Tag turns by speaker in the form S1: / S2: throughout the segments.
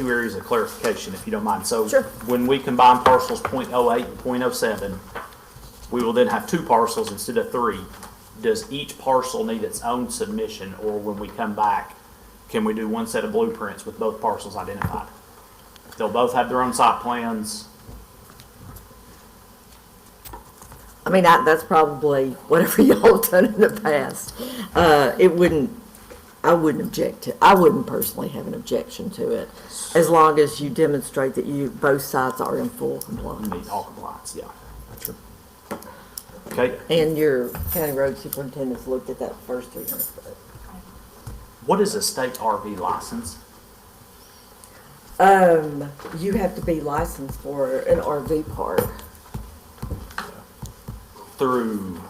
S1: two areas of clarification, if you don't mind. So
S2: Sure.
S1: when we combine parcels .08 and .07, we will then have two parcels instead of three. Does each parcel need its own submission, or when we come back, can we do one set of blueprints with both parcels identified? They'll both have their own site plans.
S2: I mean, I, that's probably whatever y'all have done in the past. Uh, it wouldn't, I wouldn't object to, I wouldn't personally have an objection to it, as long as you demonstrate that you, both sides are in full compliance.
S1: Meet all compliance, yeah. Okay,
S2: And your county road superintendent's looked at that first three hundred foot.
S1: what is a state RV license?
S2: Um, you have to be licensed for an RV park.
S1: Through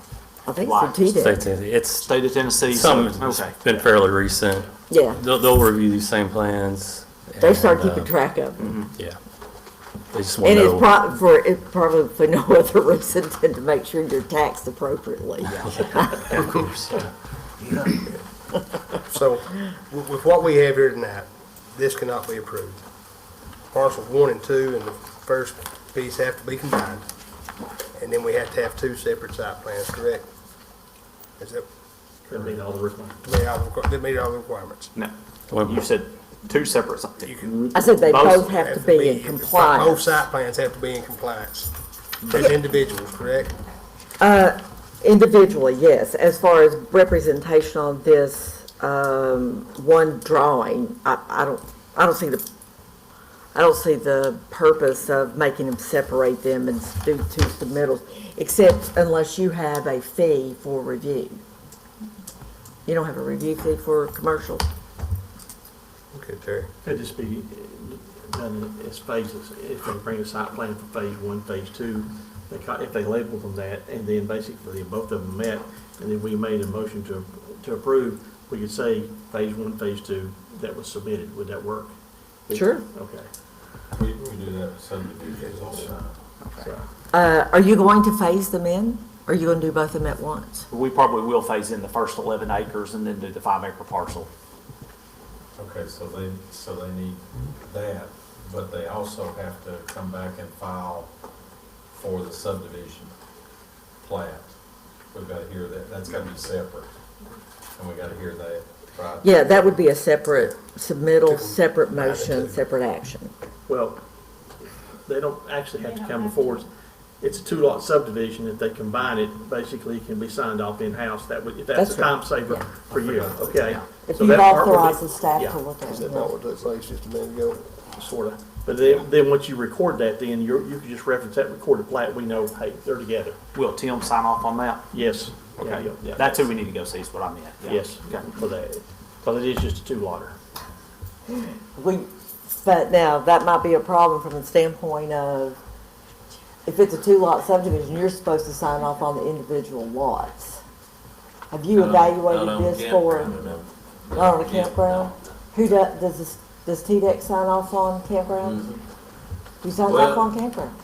S2: I think it's the TDEC.
S3: State entity. It's
S1: state of Tennessee? so-
S3: some,
S1: Okay.
S3: it's been fairly recent.
S2: Yeah,
S3: They'll, they'll review these same plans.
S2: they start
S3: and, uh,
S2: keeping track of them.
S3: Yeah. They just want
S2: And
S3: to
S2: it's
S3: know.
S2: prob, for, it's probably for no other reason than to make sure you're taxed appropriately.
S3: Of course. yeah.
S4: So with with what we have here tonight, this cannot be approved. Parcels one and two and the first piece have to be combined. And then we have to have two separate site plans, correct? Is that,
S5: That'd be all the requirements.
S4: they all, requ- they meet all the requirements?
S1: No,
S3: Well,
S1: you said two separate
S4: You
S1: something.
S4: can-
S2: I said they
S1: Both
S2: both have to be in
S4: Both
S2: compliance.
S4: site plans have to be in compliance as individuals, correct?
S2: Individually, yes, as far as representation on this, um, one drawing, I, I don't, I don't see the, I don't see the purpose of making them separate them and do two submittals, except unless you have a fee for review. You don't have a review fee for commercial?
S4: Okay, Terry.
S5: Could just be uh, done as phases, if they bring a site plan for phase one, phase two, they, ca- if they label them that, and then basically both of them met, and then we made a motion to, to approve, we could say phase one, phase two, that was submitted, would that work?
S2: Sure.
S5: Okay,
S6: We, we do that with subdivisions all the time.
S5: so,
S2: Uh, are you going to phase them in? Or are you gonna do both of them at once?
S1: We probably will phase in the first eleven acres and then do the five acre parcel.
S6: Okay, so they, so they need that, but they also have to come back and file for the subdivision plat. We've gotta hear that, that's gotta be separate, and we gotta hear that, right?
S2: Yeah, that would be a separate submittal, separate motion, separate action.
S5: well, they don't actually have to come before, us. it's a two lot subdivision, if they combine it, basically it can be signed off in-house, that would, if that's
S2: That's
S5: a
S2: right,
S5: time saver
S2: yeah.
S5: for you, okay?
S2: If
S5: So
S2: you've
S5: that part would be-
S2: authorized the staff
S5: yeah.
S2: to look at
S4: Is
S2: it.
S4: that not what that says just a minute ago?
S5: sort of. But then, then once you record that, then you're, you can just reference that recorded plat, we know, hey, they're together.
S1: Will Tim sign off on that?
S5: Yes. Yeah, yeah, yeah.
S1: That's who we need to go see is what I meant. Yeah.
S5: Yes, for that, because it is just a two-lotter.
S2: We, but now, that might be a problem from the standpoint of, if it's a two-lot subdivision, you're supposed to sign off on the individual lots. Have you evaluated this for, not on a campground? Who does, does, this- does TDEC sign off on campgrounds?
S5: Mm-hmm.
S2: Who signs off
S7: Well-
S2: on campground?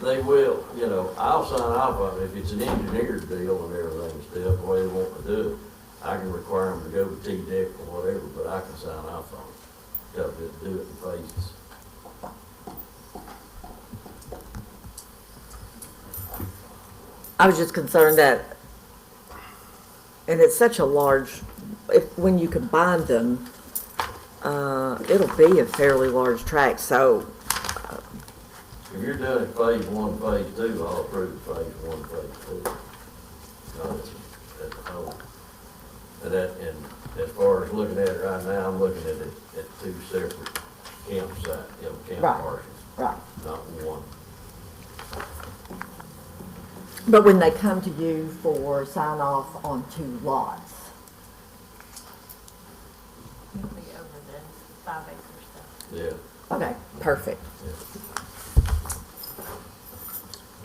S7: They will, you know, I'll sign off on it if it's an engineered deal and everything still, the way they want to do it. I can require them to go to T-Deck or whatever, but I can sign off on it. Tell them to do it in phases.
S2: I was just concerned that, and it's such a large, if, when you combine them, uh, it'll be a fairly large tract, so
S7: If you're doing it phase one, phase two, I'll approve phase one, phase two. No, it's- that's the whole. And that, and as far as looking at it right now, I'm looking at it at two separate campsite, you know, camp
S2: Right.
S7: parcels,
S2: Right.
S7: not one.
S2: But when they come to you for sign off on two lots,
S8: Usually over the five acres though.
S7: Yeah.
S2: okay, perfect.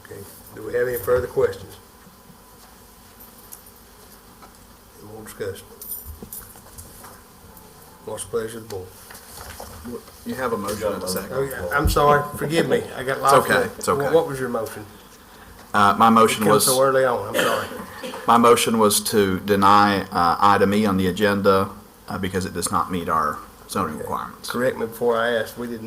S4: Okay, do we have any further questions? And we'll discuss. What's the pleasure of the board?
S9: You have a motion and a second.
S4: Oh, I'm sorry, forgive me, I got lost.
S9: okay, it's okay.
S4: What- What was your motion?
S9: Uh, my
S4: It
S9: motion
S4: came
S9: was,
S4: so early on, I'm sorry.
S9: my motion was to deny, uh, item E on the agenda, uh, because it does not meet our zoning requirements.
S4: Correct me before I asked, we did not